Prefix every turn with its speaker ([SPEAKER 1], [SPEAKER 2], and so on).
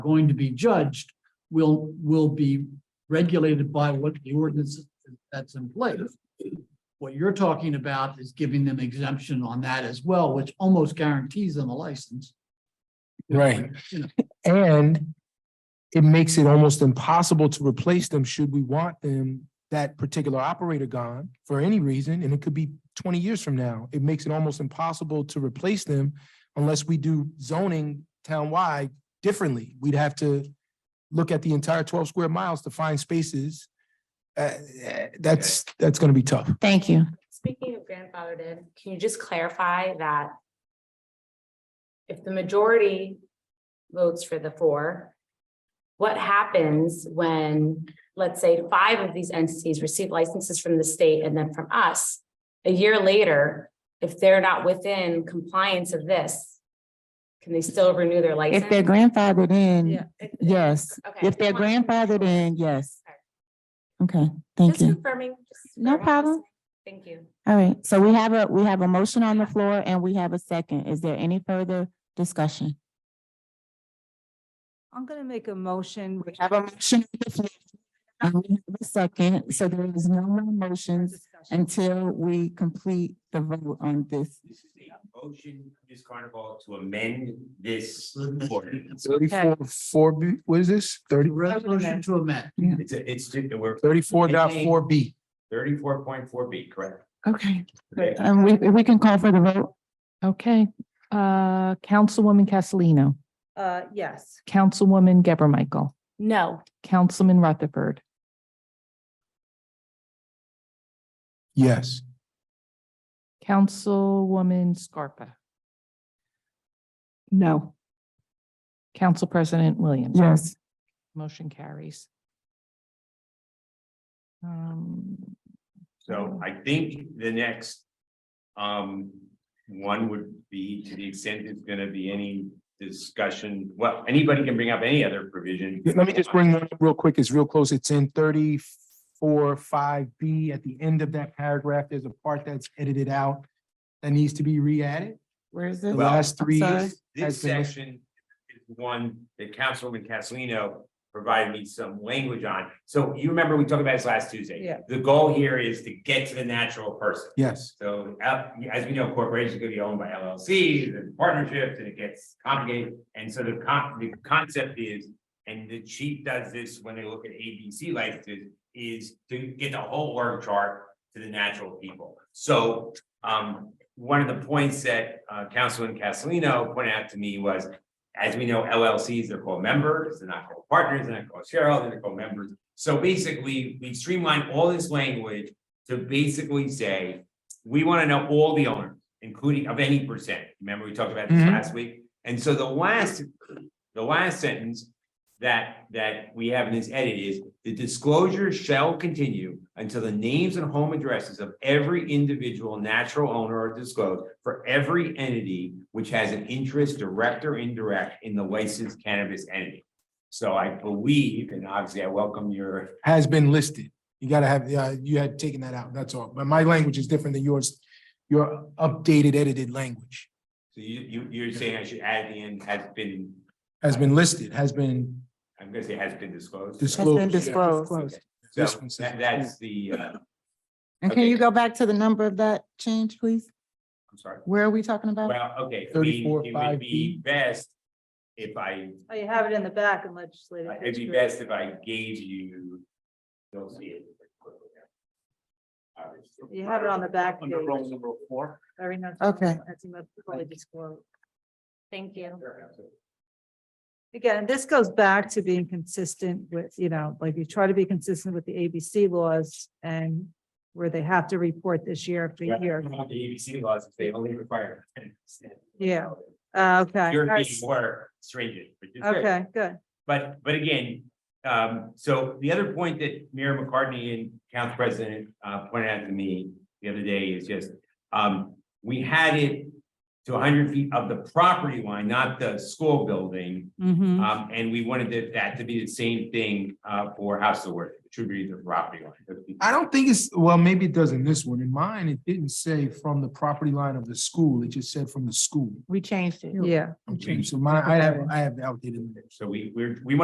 [SPEAKER 1] going to be judged will, will be regulated by what the ordinance that's in place. What you're talking about is giving them exemption on that as well, which almost guarantees them a license.
[SPEAKER 2] Right.
[SPEAKER 1] You know.
[SPEAKER 2] And it makes it almost impossible to replace them should we want them, that particular operator gone for any reason, and it could be twenty years from now. It makes it almost impossible to replace them unless we do zoning town-wide differently. We'd have to look at the entire twelve square miles to find spaces. Uh, that's, that's gonna be tough.
[SPEAKER 3] Thank you.
[SPEAKER 4] Speaking of grandfathered in, can you just clarify that? If the majority votes for the four. What happens when, let's say, five of these entities receive licenses from the state and then from us? A year later, if they're not within compliance of this. Can they still renew their license?
[SPEAKER 3] If they're grandfathered in,
[SPEAKER 4] Yeah, it-
[SPEAKER 3] yes.
[SPEAKER 4] Okay.
[SPEAKER 3] If they're grandfathered in, yes. Okay,
[SPEAKER 4] Just
[SPEAKER 3] thank you.
[SPEAKER 4] confirming. just
[SPEAKER 3] No
[SPEAKER 4] confirming.
[SPEAKER 3] problem.
[SPEAKER 4] Thank you.
[SPEAKER 3] All right, so we have a, we have a motion on the floor and we have a second. Is there any further discussion?
[SPEAKER 5] I'm gonna make a motion.
[SPEAKER 3] We have a motion on the floor. and we have a Second, so there is no more motions until we complete the vote on this.
[SPEAKER 6] This is a motion, Ms. Carnival, to amend this ordinance.
[SPEAKER 2] Thirty-four, four, B- what is this? Thirty,
[SPEAKER 1] Resolution to amend.
[SPEAKER 6] It's, a- it's, ju- we're
[SPEAKER 2] thirty-four dot four B.
[SPEAKER 6] thirty-four point four B, correct?
[SPEAKER 3] Okay.
[SPEAKER 6] Okay.
[SPEAKER 3] And we, we can call for the vote.
[SPEAKER 7] Okay, uh, Councilwoman Castellino,
[SPEAKER 5] Uh, yes.
[SPEAKER 7] Councilwoman Geber Michael,
[SPEAKER 4] No.
[SPEAKER 7] Councilman Rutherford,
[SPEAKER 2] Yes.
[SPEAKER 7] Councilwoman Scarpa. No. Council President Williams.
[SPEAKER 3] Yes.
[SPEAKER 7] Motion carries. Um,
[SPEAKER 6] So I think the next um one would be to the extent there's gonna be any discussion, well, anybody can bring up any other provision.
[SPEAKER 2] Yeah, Let me just bring one up real quick. It's real close. It's in thirty-four, five B. At the end of that paragraph, there's a part that's edited out that needs to be re-added.
[SPEAKER 3] Where is
[SPEAKER 2] The
[SPEAKER 3] this?
[SPEAKER 6] Well,
[SPEAKER 2] last three.
[SPEAKER 3] sorry.
[SPEAKER 2] has
[SPEAKER 6] This
[SPEAKER 2] been listed.
[SPEAKER 6] section is one that Councilwoman Castellino provided me some language on. So you remember we talked about this last Tuesday?
[SPEAKER 5] Yeah.
[SPEAKER 6] The goal here is to get to the natural person.
[SPEAKER 2] Yes,
[SPEAKER 6] So uh, as we know, corporations can be owned by LLCs and partnerships and it gets complicated. And so the con- the concept is, and the chief does this when they look at ABC licenses, is to get the whole org chart to the natural people. So um, one of the points that uh Councilman Castellino pointed out to me was, as we know, LLCs, they're called members, they're not called partners, they're not called shareholders, they're called members. So basically, we streamlined all this language to basically say, we want to know all the owners, including of any percent. Remember, we talked about this
[SPEAKER 2] Mhm.
[SPEAKER 6] last week? And so the last, the last sentence that, that we have in this edit is, the disclosure shall continue until the names and home addresses of every individual natural owner are disclosed for every entity which has an interest, direct or indirect, in the licensed cannabis entity. So I believe, and obviously I welcome your
[SPEAKER 2] has been listed. You gotta have, yeah, you had taken that out. That's all. But my language is different than yours. Your updated edited language
[SPEAKER 6] So you, you, you're saying I should add at the end has been,
[SPEAKER 2] has been listed, has been,
[SPEAKER 6] I'm gonna say has been disclosed.
[SPEAKER 2] Disclosed.
[SPEAKER 3] Has been
[SPEAKER 2] Close, yeah.
[SPEAKER 3] disclosed.
[SPEAKER 6] Okay. So
[SPEAKER 2] This one says-
[SPEAKER 6] that, that's the, uh,
[SPEAKER 3] And can you go back to the number of that change, please?
[SPEAKER 6] I'm sorry.
[SPEAKER 3] Where are we talking about?
[SPEAKER 6] Well, okay, I mean,
[SPEAKER 2] 34,
[SPEAKER 6] it would
[SPEAKER 2] 5B.
[SPEAKER 6] be best if I,
[SPEAKER 5] Oh, you have it in the back in legislative.
[SPEAKER 6] it'd be
[SPEAKER 5] history.
[SPEAKER 6] best if I gave you. You'll see it. Obviously.
[SPEAKER 5] You have it on the back. page.
[SPEAKER 1] number four.
[SPEAKER 5] Very nice.
[SPEAKER 3] Okay.
[SPEAKER 5] That's in the religious quote.
[SPEAKER 4] Thank you.
[SPEAKER 5] Again, this goes back to being consistent with, you know, like you try to be consistent with the ABC laws and where they have to report this year after
[SPEAKER 6] Yeah, I
[SPEAKER 5] year.
[SPEAKER 6] don't know The ABC laws, if they only require. 10%.
[SPEAKER 5] Yeah, Uh, Okay.
[SPEAKER 6] You're
[SPEAKER 5] all right.
[SPEAKER 6] being more stringent, which is good.
[SPEAKER 5] Okay, good.
[SPEAKER 6] But, but again, um, so the other point that Mayor McCartney and Council President, uh, pointed out to me the other day is just, um, we had it to hundred feet of the property line, not the school building.
[SPEAKER 5] Mhm.
[SPEAKER 6] Um, and we wanted that- that to be the same thing, uh, for House of Worth, which would be the property line.
[SPEAKER 2] I don't think it's, well, maybe it does in this one. In mine, it didn't say from the property line of the school. It just said from the school.
[SPEAKER 7] We changed it.
[SPEAKER 5] Yeah.
[SPEAKER 2] Okay, so my, I have, I have outdated. language.
[SPEAKER 6] So we, we're, we want